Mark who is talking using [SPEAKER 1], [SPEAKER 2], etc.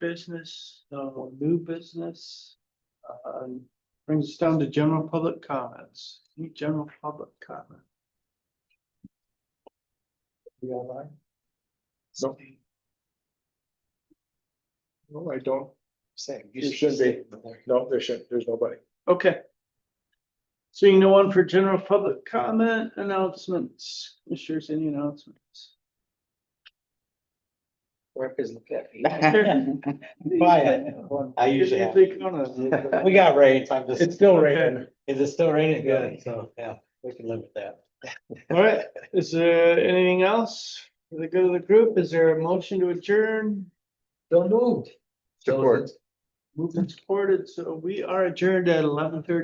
[SPEAKER 1] business, no new business. Uh, brings us down to general public comments, any general public comment? You all right?
[SPEAKER 2] No. No, I don't.
[SPEAKER 3] Same.
[SPEAKER 2] You should be. No, there shouldn't. There's nobody.
[SPEAKER 1] Okay. Seeing no one for general public comment announcements, Commissioners, any announcements?
[SPEAKER 3] Work is the fifty.
[SPEAKER 4] Quiet. I usually have.
[SPEAKER 1] Anything on
[SPEAKER 4] We got rain, so I'm just,
[SPEAKER 2] It's still raining.
[SPEAKER 4] is it still raining? Good, so, yeah, we can live with that.
[SPEAKER 1] it? All right, is there anything else for the good of the group? Is there a motion to adjourn?
[SPEAKER 3] Don't move.
[SPEAKER 2] Support.
[SPEAKER 1] Moved and supported, so we are adjourned at eleven thirty.